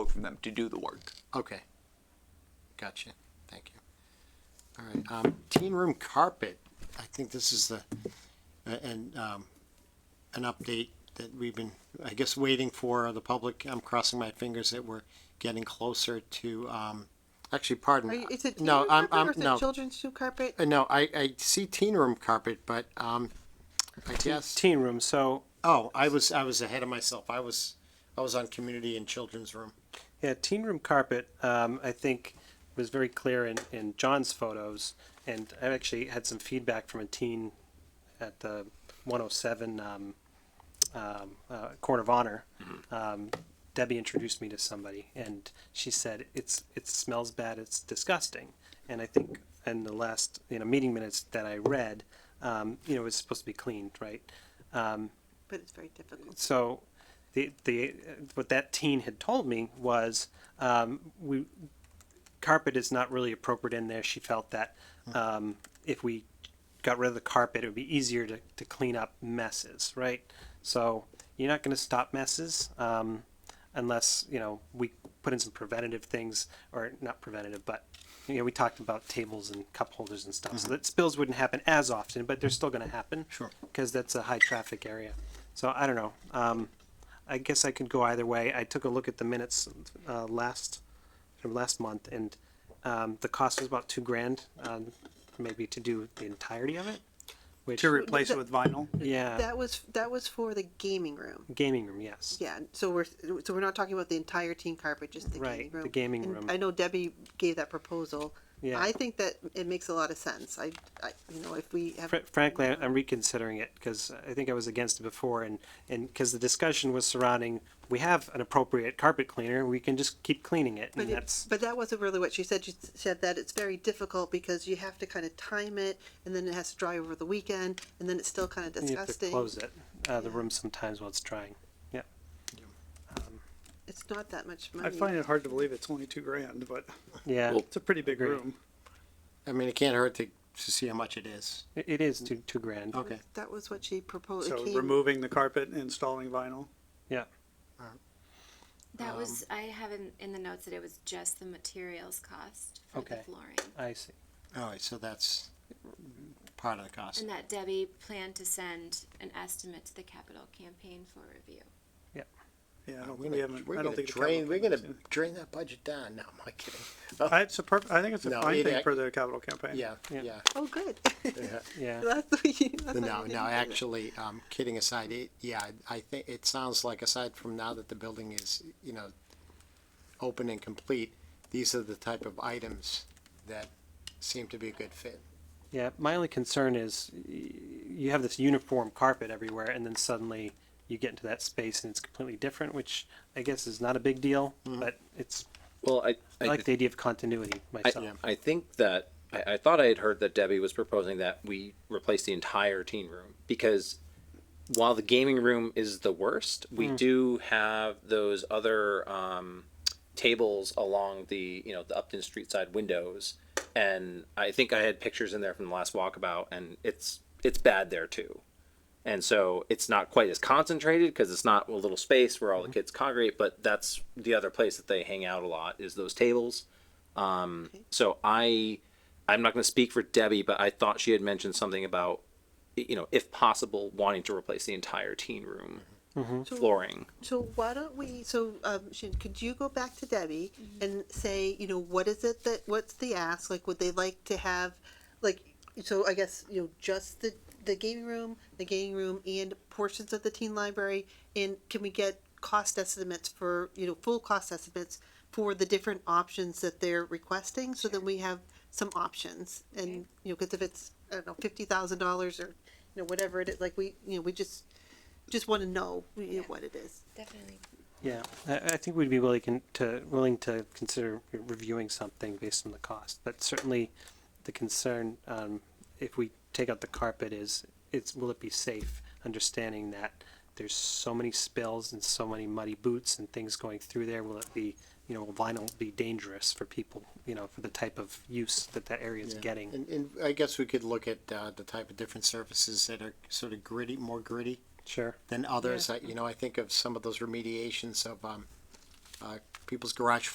from them to do the work. Okay. Gotcha. Thank you. All right, um, teen room carpet. I think this is the, a- and, um, an update that we've been, I guess, waiting for the public. I'm crossing my fingers that we're getting closer to, um, actually, pardon. Are you, is it teen No, room I'm, carpet or I'm, is no. it children's shoe carpet? Uh, No, I, I see teen room carpet, but, um, I guess. teen room. So Oh, I was I was ahead of myself. I was I was on community and children's room. yeah, teen room carpet. Um, I think was very clear in, in John's photos, and I actually had some feedback from a teen at the 107 um, um, uh, Court of Honor. Um, Debbie introduced me to somebody, and she said it's it smells bad. It's disgusting. And I think in the last you know meeting minutes that I read, um, you know, it's supposed to be cleaned, right? But it's very difficult. so the the what that teen had told me was um, we carpet is not really appropriate in there. She felt that um, if we got rid of the carpet, it would be easier to, to clean up messes, right? So you're not going to stop messes um, unless you know we put in some preventative things, or not preventative, but you know we talked about tables and cup holders and stuff, so that spills wouldn't happen as often, but they're still going to happen, Sure. because that's a high traffic area. So I don't know. Um, I guess I could go either way. I took a look at the minutes uh, last from last month, and um, the cost was about two grand, um, maybe to do the entirety of it. Which to replace it with vinyl. yeah, That was that was for the gaming room. gaming room, yes. Yeah, so we're so we're not talking about the entire teen carpet, just the Right, gaming the room. gaming And room. I know Debbie gave that proposal. Yeah. I think that it makes a lot of sense. I, I you know, if we have Fr- frankly, I- I'm reconsidering it because I think I was against it before, and and because the discussion was surrounding we have an appropriate carpet cleaner, we can just keep cleaning it, But, and it, that's but that wasn't really what she said. She said that it's very difficult because you have to kind of time it, and then it has to dry over the weekend, and then it's still kind of you have to disgusting. close it uh, the Yeah. room sometimes while it's drying. Yeah. It's not that much money. I find it hard to believe it's only two grand, but Yeah. it's a pretty big Agreed. room. I mean, it can't hurt to to see how much it is. It- it is two two grand. Okay. that was what she proposed. So it came- removing the carpet, and installing vinyl. Yeah. That was I have in, in the notes that it was just the materials cost for Okay. the flooring, I see. All right, so that's part of the cost. and that Debbie planned to send an estimate to the capital campaign for review. Yeah, I don't We're think we gonna- haven't. we're I don't gonna think the drain. capital We're gonna campaign's drain that budget down. No, I'm not kidding. in. I, Uh, it's a perf- I think it's a No, fine it- thing for the capital campaign. Yeah, Yeah. yeah. Oh, good. yeah. Yeah. that's the way you, that's why No, you didn't do no. that. Actually, um, kidding aside, it, yeah, I think it sounds like aside from now that the building is you know open and complete, these are the type of items that seem to be a good fit. Yeah, my only concern is y- you have this uniform carpet everywhere, and then suddenly you get into that space and it's completely different, which I guess is not a big deal, but it's Well, I, I Mm-hmm. I, like the idea of continuity I, myself. I think that I, I thought I had heard that Debbie was proposing that we replace the entire teen room because while the gaming room is the worst, we do have those other um, tables along the you know the Upton Street side windows, and I think I had pictures in there from the last walkabout, and it's it's bad there too. And so it's not quite as concentrated because it's not a little space where all the kids congregate, but that's the other place that they hang out a lot is those tables. Um, So I, I'm not going to speak for Debbie, but I thought she had mentioned something about, y- you know, if possible, wanting to replace the entire teen room So- flooring. So why don't we, so, um, Shin, could you go back to Debbie and say, you know, what is it that, what's the ask? Like, would they like to have, like, so I guess, you know, just the, the gaming room, the gaming room and portions of the teen library? And can we get cost estimates for, you know, full cost estimates for the different options that they're requesting? So that we have some options and, you know, cause if it's, I don't know, fifty thousand dollars or, you know, whatever it is, like, we, you know, we just, just wanna know, you know, Yeah. what it is. Definitely. Yeah, I, I think we'd be willing con- to willing to consider reviewing something based on the cost, but certainly the concern um, if we take out the carpet is it's will it be safe? Understanding that there's so many spills and so many muddy boots and things going through there, will it be you know will vinyl be dangerous for people? You know for the type of use that that area is Yeah. getting. And, and I guess we could look at uh, the type of different surfaces that are sort of gritty, more gritty Sure. than others. I, you know, I think of some of those remediations of um, uh, people's garage